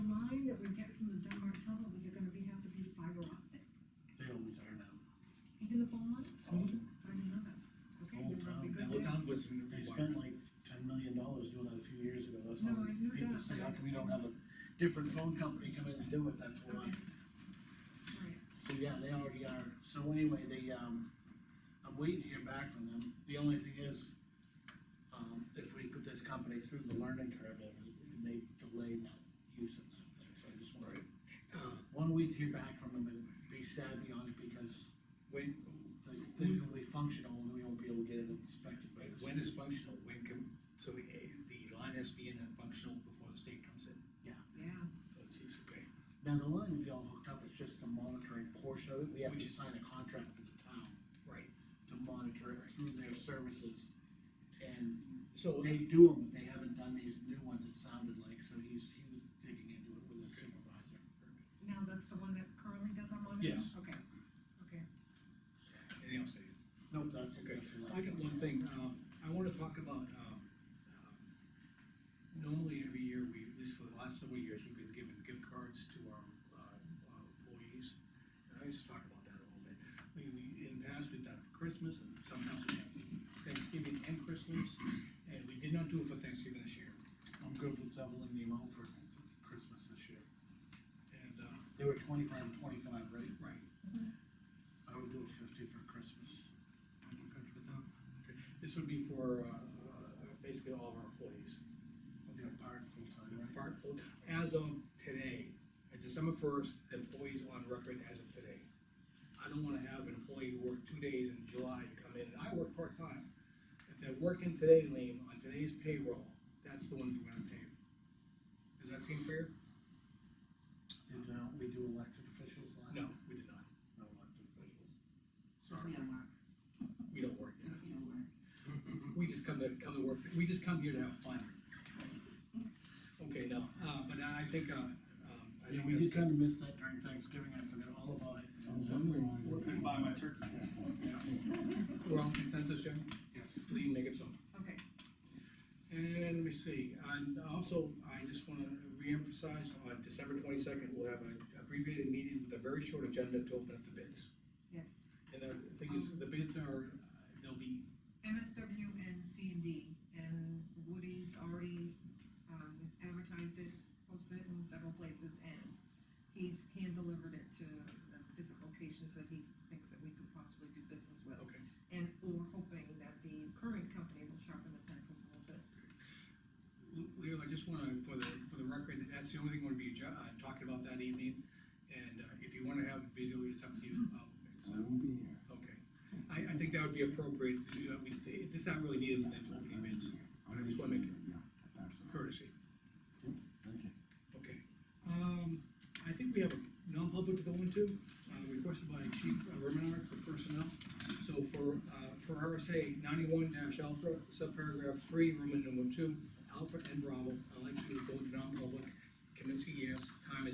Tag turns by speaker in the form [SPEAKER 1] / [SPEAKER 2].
[SPEAKER 1] different phone company come in and do it, that's why. So, yeah, they already are, so anyway, they, um, I'm waiting to hear back from them, the only thing is, um, if we put this company through the learning curve, it it may delay that use of that thing, so I just wanna. Uh, wanna wait to hear back from them and be savvy on it, because
[SPEAKER 2] When,
[SPEAKER 1] the thing will be functional, and we won't be able to get it inspected by this.
[SPEAKER 2] when is functional, when can, so we- eh, the line has to be in and functional before the state comes in?
[SPEAKER 3] Yeah,
[SPEAKER 2] Oh, geez, okay.
[SPEAKER 1] Now, the line will be all hooked up, it's just the monitoring portion of it, we have
[SPEAKER 2] Which
[SPEAKER 1] to
[SPEAKER 2] is-
[SPEAKER 1] sign a contract with the town
[SPEAKER 2] Right,
[SPEAKER 1] to monitor it through their services. And
[SPEAKER 2] so,
[SPEAKER 1] they do them, but they haven't done these new ones, it sounded like, so he's, he was digging into it with his supervisor.
[SPEAKER 3] now that's the one that currently does our monitoring?
[SPEAKER 2] Yes.
[SPEAKER 3] Okay, okay.
[SPEAKER 2] anything else, Dave?
[SPEAKER 1] Nope, that's a
[SPEAKER 2] Okay,
[SPEAKER 1] good selection.
[SPEAKER 2] I got one thing, um, I wanna talk about, um, um, normally every year, we, at least for the last several years, we've been giving gift cards to our, uh, uh, employees. And I used to talk about that a little bit, we, we, in the past, we've done it for Christmas, and sometimes we have Thanksgiving and Christmas, and we did not do it for Thanksgiving this year.
[SPEAKER 1] I'm good with doubling the amount for Christmas this year.
[SPEAKER 2] And, uh,
[SPEAKER 1] They were twenty-five and twenty-five, right?
[SPEAKER 2] right,
[SPEAKER 1] I would do a fifty for Christmas.
[SPEAKER 2] I'm good with that. Okay, This would be for, uh, uh, basically all of our employees.
[SPEAKER 1] I'll do a part full-time, right?
[SPEAKER 2] Part- as of today, at December first, employees on record as of today. I don't wanna have an employee who worked two days in July to come in, and I work part-time. If they're working today, Lean, on today's payroll, that's the one we're gonna pay. Does that seem fair?
[SPEAKER 1] Did, uh, we do elected officials last?
[SPEAKER 2] No, we did not.
[SPEAKER 1] No elected officials.
[SPEAKER 3] Since we
[SPEAKER 2] Sorry,
[SPEAKER 3] don't work,
[SPEAKER 2] we don't work.
[SPEAKER 3] we don't work.
[SPEAKER 1] Mm-hmm.
[SPEAKER 2] We just come to, come to work, we just come here to have fun. Okay, no, uh, but I think, uh, um, I
[SPEAKER 1] Yeah,
[SPEAKER 2] think
[SPEAKER 1] we
[SPEAKER 2] that's-
[SPEAKER 1] did kinda miss that during Thanksgiving, I forgot all about it.
[SPEAKER 4] We're gonna buy my turkey.
[SPEAKER 2] We're on consensus, Jim?
[SPEAKER 1] Yes.
[SPEAKER 2] Lee, make it so.
[SPEAKER 3] Okay,
[SPEAKER 2] And let me see, and also, I just wanna reemphasize, on December twenty-second, we'll have an abbreviated meeting with a very short agenda to open up the bids.
[SPEAKER 3] yes.
[SPEAKER 2] And the thing is, the bids are, they'll be,
[SPEAKER 3] MSW and C and D, and Woody's already, um, advertised it, posted it in several places, and he's hand-delivered it to the different locations that he thinks that we could possibly do business with.
[SPEAKER 2] okay.
[SPEAKER 3] And we're hoping that the current company will sharpen the pencils a little bit.
[SPEAKER 2] Leo, I just wanna, for the, for the record, that's the only thing we're gonna be, ju- uh, talking about that evening, and, uh, if you wanna have video, it's up to you. Uh, it's,
[SPEAKER 4] I
[SPEAKER 2] uh,
[SPEAKER 4] will be here.
[SPEAKER 2] Okay, I, I think that would be appropriate, you know, we, it's not really needed, that opening bids, I just wanna make it
[SPEAKER 4] Yeah, absolutely.
[SPEAKER 2] courtesy.
[SPEAKER 4] Thank you.
[SPEAKER 2] Okay, um, I think we have a non-public to go into, uh, requested by Chief Remenar for personnel. So for, uh, for RSA ninety-one dash alpha, subparagraph three, Roman number two, alpha and Bravo, I'd like to go to non-public. Kaminsky, yes, time is